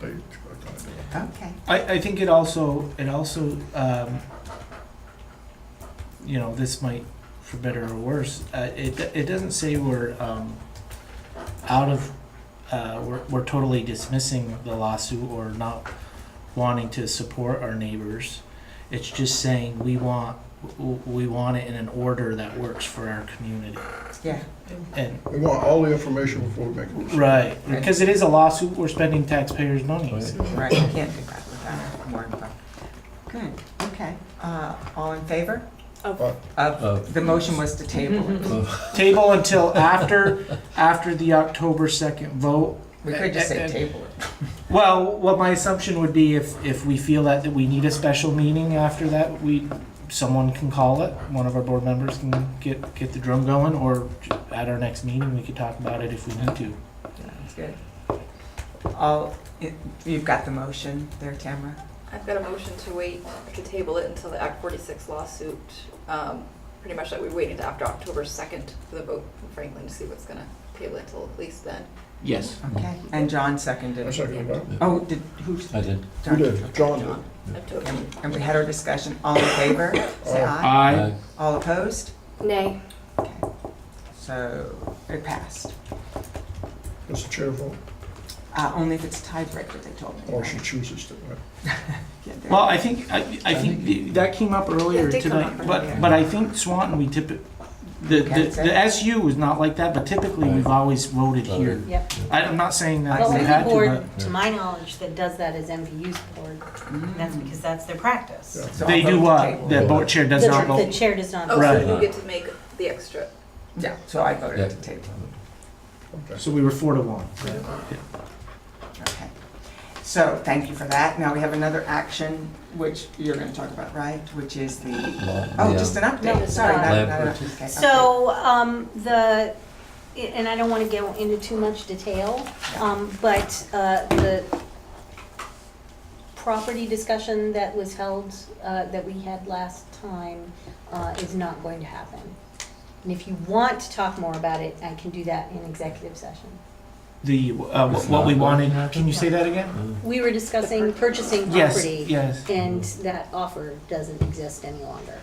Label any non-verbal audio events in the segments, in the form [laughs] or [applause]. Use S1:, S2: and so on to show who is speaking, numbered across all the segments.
S1: they are gonna do it.
S2: Okay.
S3: I, I think it also, it also, um, you know, this might, for better or worse, uh, it, it doesn't say we're, um, out of, uh, we're, we're totally dismissing the lawsuit or not wanting to support our neighbors. It's just saying we want, w- we want it in an order that works for our community.
S2: Yeah.
S3: And,
S1: We want all the information before we make a decision.
S3: right, because it is a lawsuit, we're spending taxpayers' money.
S4: Oh,
S2: Right, you can't do that without more info. Good, okay. Uh, all in favor?
S5: Of.
S1: Of.
S2: Of, the motion was to table it.
S3: Table until after, after the October second vote,
S2: We could just say table it.
S3: Well, what my assumption would be if, if we feel that, that we need a special meeting after that, we, someone can call it. One of our board members can get, get the drum going, or at our next meeting, we could talk about it if we need to.
S2: Sounds good. All, you- you've got the motion there, Tamara?
S5: I've got a motion to wait, to table it until the Act 46 lawsuit, um, pretty much that we wait until after October 2nd for the vote from Franklin to see what's gonna table it till at least then.
S4: Yes.
S2: Okay.
S1: Mm-hmm.
S2: And John seconded.
S1: I second that.
S2: Oh, did, who?
S4: I did.
S1: Who
S2: John
S1: did? John did.
S5: John, I've told you.
S2: And and we had our discussion, all in favor, say aye.
S3: I
S4: Uh,
S2: All opposed?
S5: Nay.
S2: Okay. So it passed.
S1: It's a chair vote,
S2: Uh, Only if it's a tiebreaker, they told me.
S1: or she
S2: right?
S1: chooses to. right?
S2: Yeah, there-
S3: Well, I think, I, I think the- that came up earlier
S5: It did come
S3: tonight,
S5: up earlier.
S3: but, but I think Swanton, we typically, the,
S2: Okay.
S3: the, the SU was not like that, but typically we've always voted here.
S6: Yep.
S3: I- I'm not saying that
S2: Well,
S3: we
S6: The
S3: had
S6: only
S3: to,
S6: board, to my knowledge, that does that is MVU's board,
S2: Mm-hmm.
S6: and that's because that's their practice.
S1: Yeah.
S2: So
S3: but
S2: I'll
S3: they
S2: vote
S3: do
S2: to
S3: what?
S2: table.
S3: The board chair does
S6: The-
S3: not vote.
S6: The chair does not.
S5: Oh,
S3: Right.
S5: so you get to make the extra.
S2: Yeah, so I voted to
S4: Yeah.
S2: table.
S1: Okay.
S3: So we were four to one.
S2: Okay. So thank you for that. Now we have another action, which you're going to talk about, right? Which is the, oh, just an
S6: No,
S2: update,
S6: it's
S2: sorry.
S6: not.
S2: not-
S4: Lab
S2: not an update.
S4: purchase.
S2: Okay,
S6: So, um, the, and I don't wanna go into too much detail, um, but, uh, the property discussion that was held, uh, that we had last time, uh, is not going to happen. And if you want to talk more about it, I can do that in executive session.
S3: The, uh,
S4: It's
S3: what we
S4: not
S3: wanted,
S4: going to
S3: can you say that again?
S4: Uh,
S6: We were discussing purchasing
S3: Yes,
S6: property.
S3: yes.
S6: And that offer doesn't exist any longer.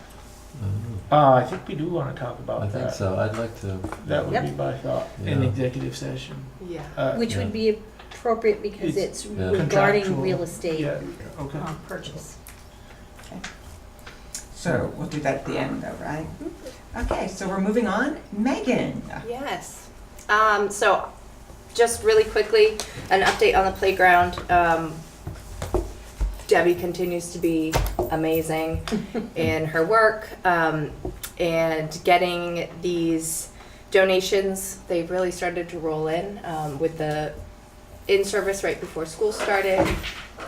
S3: Uh, I think we do want to talk
S4: I
S3: about
S4: think
S3: that.
S4: so, I'd like to.
S3: That would be
S6: Yep.
S3: my thought, in
S4: Yeah.
S3: executive session.
S5: Yeah.
S3: Uh,
S6: Which would be appropriate because
S3: It's
S6: it's
S4: yeah.
S6: regarding
S3: contractual,
S6: real estate
S3: Yeah, okay.
S6: um, purchase.
S2: So we'll do that at the end though, right? Okay, so we're moving on. Megan.
S7: Yes. Um, so, just really quickly, an update on the playground. Um, Debbie continues to be
S4: [laughs]
S7: amazing in her work um, and getting these donations. They've really started to roll in um, with the in service right before school started.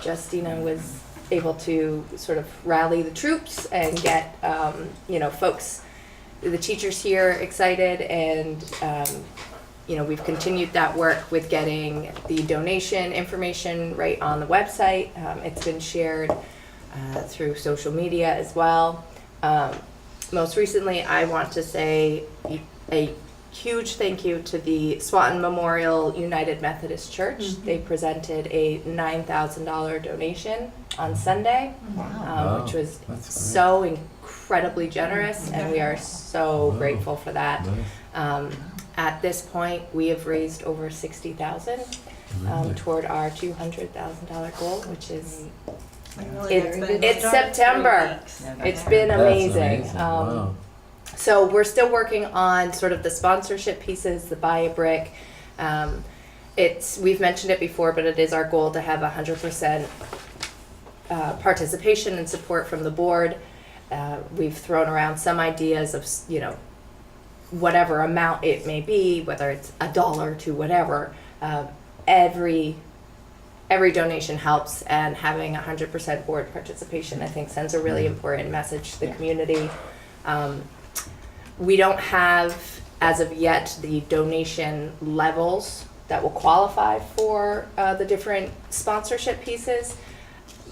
S7: Justina was able to sort of rally the troops and get um, you know folks the teachers here excited and um, you know we've continued that work with getting the donation information right on the website um, it's been shared uh, through social media as well um, most recently i want to say a huge thank you to the swanton memorial united methodist church
S5: Mm-hmm.
S7: they presented a $9000 donation on sunday
S5: Oh.
S2: Wow.
S4: Wow,
S7: um, which was
S4: that's great.
S7: so incredibly generous, and we are so
S4: Wow.
S7: grateful for that.
S4: Nice.
S7: Um, at this point, we have raised over sixty thousand um,
S4: Really?
S7: toward our two hundred thousand dollar goal, which is
S5: It's been-
S7: it's September. it's been
S4: That's
S7: amazing.
S4: amazing,
S7: Um,
S4: wow.
S7: so we're still working on sort of the sponsorship pieces, the buy a brick. Um, it's we've mentioned it before, but it is our goal to have hundred percent uh, participation and support from the board. Uh, we've thrown around some ideas of s- you know whatever amount it may be, whether it's a dollar to whatever. Uh, every every donation helps, and having hundred percent board participation, I think, sends a really important message to the
S2: Yeah.
S7: community. Um, we don't have, as of yet, the donation levels that will qualify for uh, the different sponsorship pieces.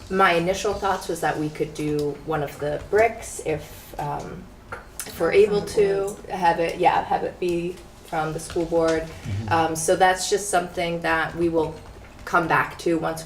S7: My initial thoughts was that we could do one of the bricks if, um, if we're able to have it, yeah, have it be
S4: Mm-hmm.
S7: from the school board. Um, so that's just something that we will come back to once we.